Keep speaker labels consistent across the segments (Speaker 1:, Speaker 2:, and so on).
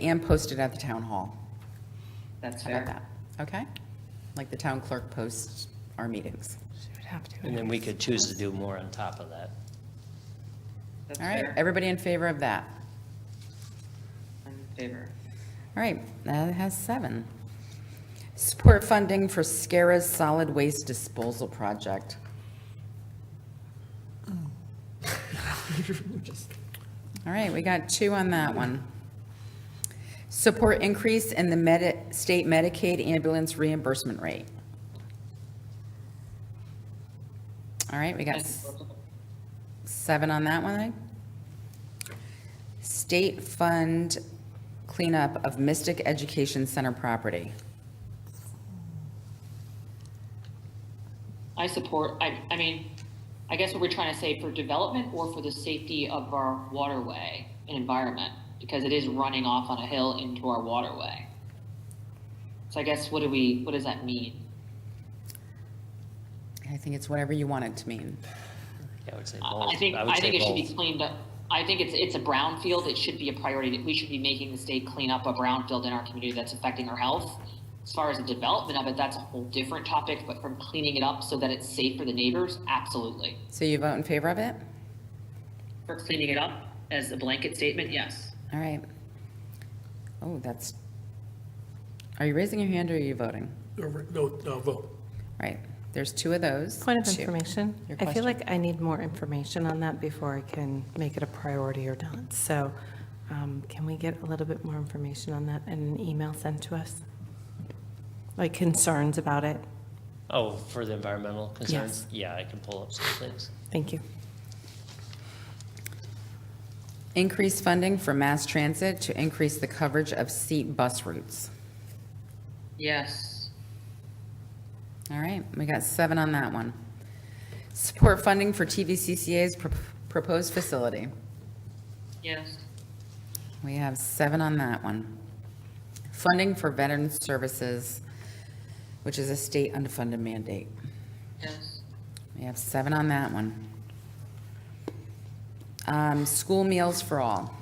Speaker 1: and post it at the town hall.
Speaker 2: That's
Speaker 1: How about
Speaker 2: fair.
Speaker 1: that? Okay? Like the town clerk posts our meetings.
Speaker 3: And then we could choose to do more on top of that.
Speaker 2: That's
Speaker 1: All right,
Speaker 2: fair.
Speaker 1: everybody in favor of that?
Speaker 2: I'm in favor.
Speaker 1: All right, that has seven. Support funding for SCARA's solid waste disposal project. All right, we got two on that one. Support increase in the medi, state Medicaid ambulance reimbursement rate. All right, we got s- seven on that one, I think. State fund cleanup of Mystic Education Center property.
Speaker 4: I support, I, I mean, I guess what we're trying to say for development or for the safety of our waterway and environment, because it is running off on a hill into our waterway. So I guess what do we, what does that mean?
Speaker 1: I think it's whatever you want it to mean.
Speaker 3: Yeah, I would say both.
Speaker 4: I I think,
Speaker 3: would
Speaker 4: I think
Speaker 3: say
Speaker 4: it should be
Speaker 3: both.
Speaker 4: cleaned up. I think it's, it's a brownfield. It should be a priority. We should be making the state clean up a brownfield in our community that's affecting our health. As far as the development of it, that's a whole different topic, but from cleaning it up so that it's safe for the neighbors, absolutely.
Speaker 1: So you vote in favor of it?
Speaker 4: For cleaning it up as a blanket statement, yes.
Speaker 1: All right. Oh, that's, are you raising your hand or are you voting?
Speaker 5: Or, No, no, vote.
Speaker 1: Right, there's two of those.
Speaker 6: Point of
Speaker 1: Two.
Speaker 6: information.
Speaker 1: Your
Speaker 6: I feel
Speaker 1: question.
Speaker 6: like I need more information on that before I can make it a priority or not. So um, can we get a little bit more information on that and an email sent to us? Like concerns about it?
Speaker 3: Oh, for the environmental concerns? Yeah, I can pull up some things.
Speaker 6: Thank you.
Speaker 1: Increase funding for mass transit to increase the coverage of seat bus routes.
Speaker 4: Yes.
Speaker 1: All right, we got seven on that one. Support funding for TVCCA's pro- proposed facility.
Speaker 4: Yes.
Speaker 1: We have seven on that one. Funding for veteran services, which is a state unfunded mandate.
Speaker 4: Yes.
Speaker 1: We have seven on that one. Um, School meals for all,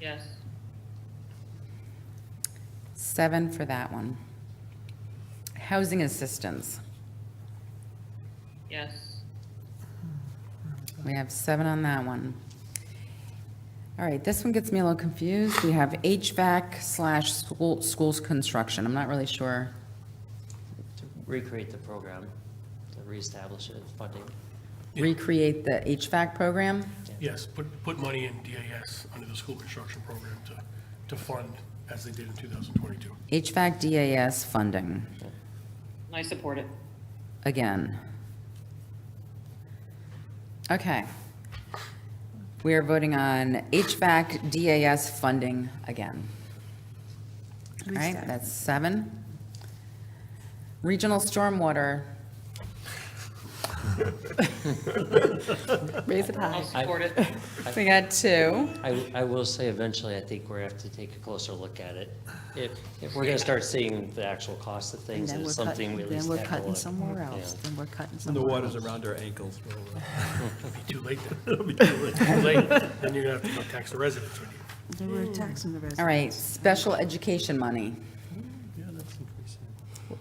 Speaker 4: Yes.
Speaker 1: seven for that one. Housing assistance,
Speaker 4: Yes.
Speaker 1: we have seven on that one. All right, this one gets me a little confused. We have HVAC slash school schools construction. I'm not really sure.
Speaker 3: To recreate the program, to reestablish it, funding.
Speaker 1: Recreate the HVAC program?
Speaker 5: Yes, put, put money in DAS under the school construction program to, to fund as they did in 2022.
Speaker 1: HVAC DAS funding,
Speaker 4: I support it.
Speaker 1: again. Okay. We are voting on HVAC DAS funding again. All right, that's seven. Regional stormwater,
Speaker 6: Raise it
Speaker 4: I
Speaker 6: high.
Speaker 4: support it.
Speaker 1: we got two.
Speaker 3: I, I will say eventually, I think we're gonna have to take a closer look at it. If, if we're gonna start seeing the actual cost of
Speaker 7: And
Speaker 3: things,
Speaker 7: then we're
Speaker 3: it's something
Speaker 7: cutting,
Speaker 3: we at
Speaker 7: then
Speaker 3: least
Speaker 7: we're
Speaker 3: have to
Speaker 7: cutting
Speaker 3: look.
Speaker 7: somewhere else,
Speaker 3: Yeah.
Speaker 7: then we're cutting
Speaker 8: The
Speaker 7: somewhere else.
Speaker 8: water's around our ankles. we'll, uh,
Speaker 5: It'll be too late, then. it'll be too late, too late, then you're gonna have to go tax the residents, when you?
Speaker 7: They were taxing the
Speaker 1: All
Speaker 7: residents.
Speaker 1: right, special education money.
Speaker 8: Yeah, that's increasing.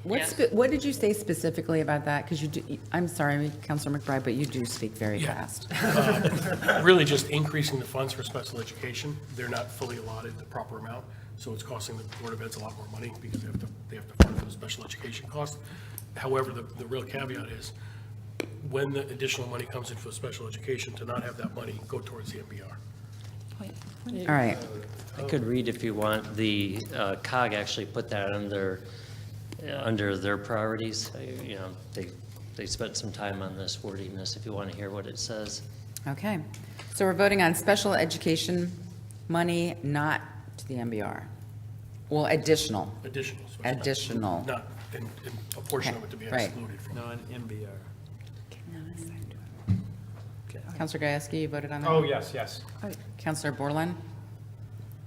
Speaker 1: What, spe- what did you say specifically about that? Because you do, I'm sorry, Counselor McBride, but you do speak very
Speaker 5: Yeah.
Speaker 1: fast.
Speaker 5: Uh, really just increasing the funds for special education. They're not fully allotted the proper amount, so it's costing the Board of Ed's a lot more money because they have to, they have to fund those special education costs. However, the, the real caveat is when the additional money comes in for special education, to not have that money go towards the MBR.
Speaker 1: All right.
Speaker 3: I could read if you want, the uh, COG actually put that under, uh, under their priorities. Uh, You know, they, they spent some time on this wording this, if you want to hear what it says.
Speaker 1: Okay, so we're voting on special education money, not to the MBR. Well, additional,
Speaker 5: Additional. so it's not-
Speaker 1: additional.
Speaker 5: Not, and, and a portion of it to be
Speaker 1: Okay, right.
Speaker 5: excluded from.
Speaker 8: Non-MBR.
Speaker 1: Counselor Gieske, you voted on that?
Speaker 9: Oh, yes, yes.
Speaker 1: Counselor Borland?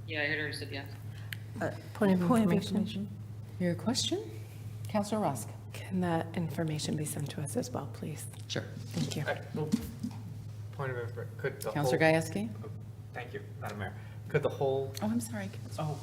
Speaker 4: Yeah, I heard her said yes.
Speaker 6: Point of
Speaker 7: Uh, Point of
Speaker 6: information.
Speaker 7: information.
Speaker 1: Your question? Counselor Rusk?
Speaker 6: Can that information be sent to us as well, please?
Speaker 1: Sure.
Speaker 6: Thank you.
Speaker 9: Point of, infor- could the whole.
Speaker 1: Counselor Gieske?
Speaker 9: Thank you, Madam Mayor.
Speaker 1: Could the whole
Speaker 9: Oh, I'm sorry.
Speaker 1: Oh,